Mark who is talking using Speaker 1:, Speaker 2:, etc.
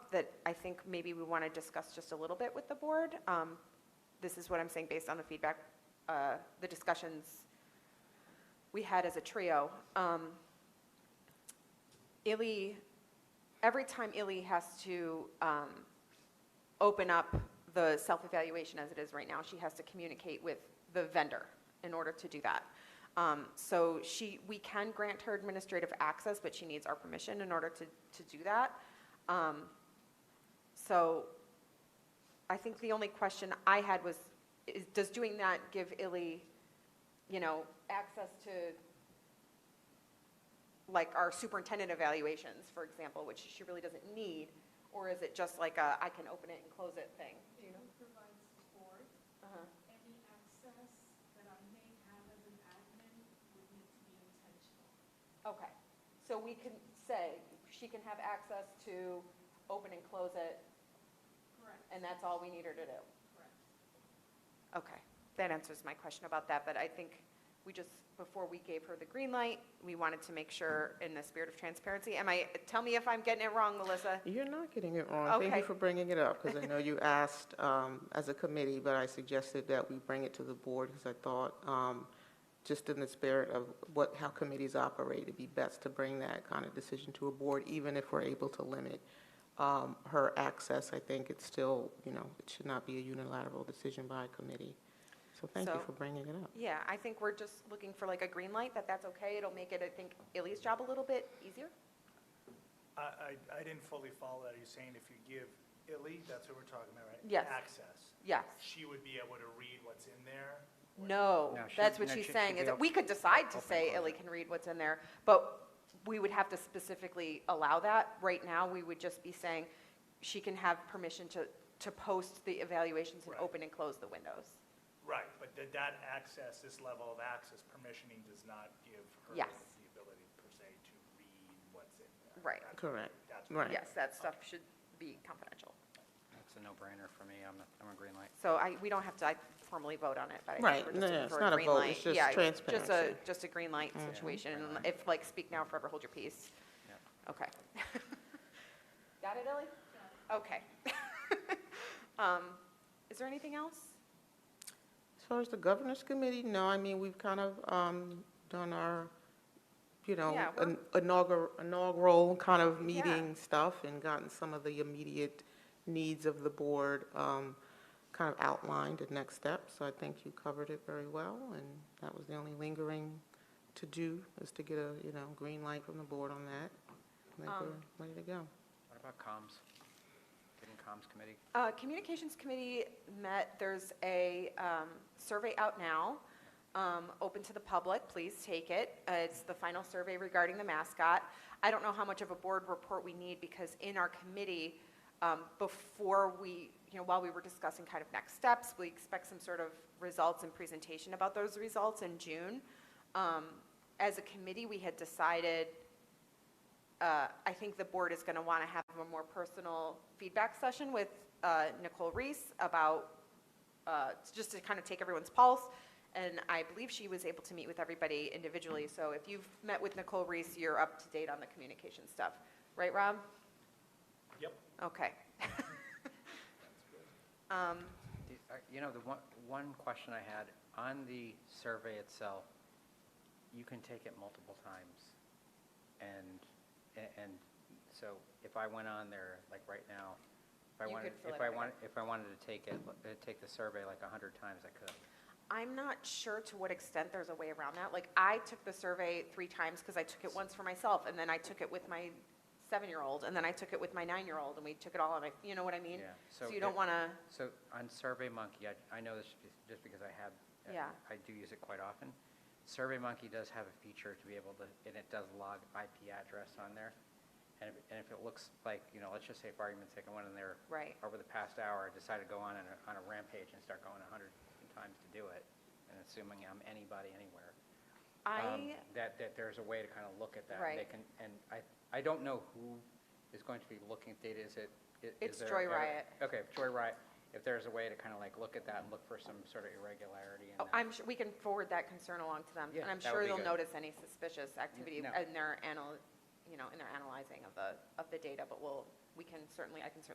Speaker 1: that I think maybe we want to discuss just a little bit with the board. Um, This is what I'm saying based on the feedback, uh, the discussions we had as a trio. Um, Illy, every time Illy has to um, open up the self-evaluation as it is right now, she has to communicate with the vendor in order to do that. Um, So she, we can grant her administrative access, but she needs our permission in order to, to do that. Um, So I think the only question I had was, is, does doing that give Illy, you know, access to, like, our superintendent evaluations, for example, which she really doesn't need? Or is it just like a, I can open it and close it thing? Do you
Speaker 2: It provides the board,
Speaker 1: know?
Speaker 2: any access that I may have as an admin would need to be intentional.
Speaker 1: Okay, so we can say, she can have access to open and close it,
Speaker 2: Correct,
Speaker 1: and that's all we need her to do?
Speaker 2: correct.
Speaker 1: Okay, that answers my question about that, but I think we just, before we gave her the green light, we wanted to make sure in the spirit of transparency, am I, tell me if I'm getting it wrong, Melissa?
Speaker 3: You're not getting it wrong. Thank
Speaker 1: Okay.
Speaker 3: you for bringing it up, because I know you asked um, as a committee, but I suggested that we bring it to the board, because I thought, um, just in the spirit of what, how committees operate, it'd be best to bring that kind of decision to a board, even if we're able to limit um, her access. I think it's still, you know, it should not be a unilateral decision by a committee. So thank
Speaker 1: So-
Speaker 3: you for bringing it up.
Speaker 1: Yeah, I think we're just looking for like a green light, that that's okay, it'll make it, I think, Illy's job a little bit easier?
Speaker 4: I, I, I didn't fully follow that. Are you saying if you give Illy, that's what we're talking about, right?
Speaker 1: Yes.
Speaker 4: Access,
Speaker 1: Yes.
Speaker 4: she would be able to read what's in there?
Speaker 1: No,
Speaker 5: No, she-
Speaker 1: that's what
Speaker 5: no,
Speaker 1: she's
Speaker 5: she-
Speaker 1: saying,
Speaker 5: she'd
Speaker 1: is
Speaker 5: be
Speaker 1: that
Speaker 5: op-
Speaker 1: we could decide to
Speaker 5: open,
Speaker 1: say
Speaker 5: close
Speaker 1: Illy
Speaker 5: it.
Speaker 1: can read what's in there, but we would have to specifically allow that. Right now, we would just be saying she can have permission to, to post the evaluations and
Speaker 4: Right.
Speaker 1: open and close the windows.
Speaker 4: Right, but that, that access, this level of access, permissioning does not give her
Speaker 1: Yes.
Speaker 4: the ability per se to read what's in there.
Speaker 1: Right.
Speaker 4: That's-
Speaker 3: Correct,
Speaker 4: That's what-
Speaker 3: right.
Speaker 1: Yes, that stuff should be confidential.
Speaker 5: That's a no-brainer for me. I'm a, I'm a green light.
Speaker 1: So I, we don't have to I formally vote on it, but I
Speaker 3: Right,
Speaker 1: think we're just
Speaker 3: no, no,
Speaker 1: looking
Speaker 3: it's
Speaker 1: for a
Speaker 3: not a
Speaker 1: green
Speaker 3: vote,
Speaker 1: light.
Speaker 3: it's just
Speaker 1: Yeah, Just
Speaker 3: transparency. Mm-hmm.
Speaker 1: a, just a green light situation,
Speaker 5: Green light.
Speaker 1: if like speak now, forever hold your peace.
Speaker 5: Yep.
Speaker 1: Okay. Got it, Ellie? Okay. Um, Is there anything else?
Speaker 3: As far as the governance committee, no, I mean, we've kind of um, done our, you know,
Speaker 1: Yeah, we're-
Speaker 3: in- inaugur- inaugural kind of
Speaker 1: Yeah.
Speaker 3: meeting stuff and gotten some of the immediate needs of the board um, kind of outlined and next steps. So I think you covered it very well, and that was the only lingering to do, is to get a, you know, green light from the board on that. I think
Speaker 1: Um,
Speaker 3: we're ready to go.
Speaker 5: What about comms? Getting comms committee?
Speaker 1: Uh, Communications Committee met, there's a um, survey out now, um, open to the public, please take it. Uh, It's the final survey regarding the mascot. I don't know how much of a board report we need, because in our committee, um, before we, you know, while we were discussing kind of next steps, we expect some sort of results and presentation about those results in June. Um, As a committee, we had decided uh, I think the board is going to want to have a more personal feedback session with uh, Nicole Reese about, uh, just to kind of take everyone's pulse. And I believe she was able to meet with everybody individually. So if you've met with Nicole Reese, you're up to date on the communication stuff. Right, Rob?
Speaker 4: Yep.
Speaker 1: Okay. Um,
Speaker 5: The- uh, You know, the one, one question I had, on the survey itself, you can take it multiple times. And, a- and so if I went on there, like right now, if I
Speaker 1: You
Speaker 5: wanted,
Speaker 1: could fill
Speaker 5: if
Speaker 1: it
Speaker 5: I
Speaker 1: out
Speaker 5: wanted, if I wanted to take it, uh, take the survey like 100 times, I could.
Speaker 1: I'm not sure to what extent there's a way around that. Like, I took the survey three times because I took it once for myself, and then I took it with my seven-year-old, and then I took it with my nine-year-old, and we took it all on my, you know what I mean?
Speaker 5: Yeah,
Speaker 1: So
Speaker 5: so
Speaker 1: you don't
Speaker 5: it-
Speaker 1: want to,
Speaker 5: So on SurveyMonkey, I, I know this be- just because I have, uh,
Speaker 1: Yeah.
Speaker 5: I do use it quite often. SurveyMonkey does have a feature to be able to, and it does log IP address on there. And if, and if it looks like, you know, let's just say for argument's sake, I went in there
Speaker 1: right,
Speaker 5: over the past hour, I decided to go on a- on a rampage and start going 100 times to do it, and assuming I'm anybody anywhere. um,
Speaker 1: I,
Speaker 5: That, that there's a way to kind of look at that. and
Speaker 1: Right.
Speaker 5: They can, and I, I don't know who is going to be looking at data, is it? i- is
Speaker 1: It's
Speaker 5: there-
Speaker 1: Joy
Speaker 5: are-
Speaker 1: Riot.
Speaker 5: Okay, Joy Riot, if there's a way to kind of like look at that and look for some sort of irregularity in
Speaker 1: oh,
Speaker 5: that.
Speaker 1: I'm sure, we can forward that concern along to them,
Speaker 5: Yeah,
Speaker 1: and I'm
Speaker 5: that would
Speaker 1: sure
Speaker 5: be
Speaker 1: they'll
Speaker 5: good.
Speaker 1: notice any suspicious activity
Speaker 5: no.
Speaker 1: in their anal, you know, in their analyzing of the, of the data, but we'll, we can certainly, I can certainly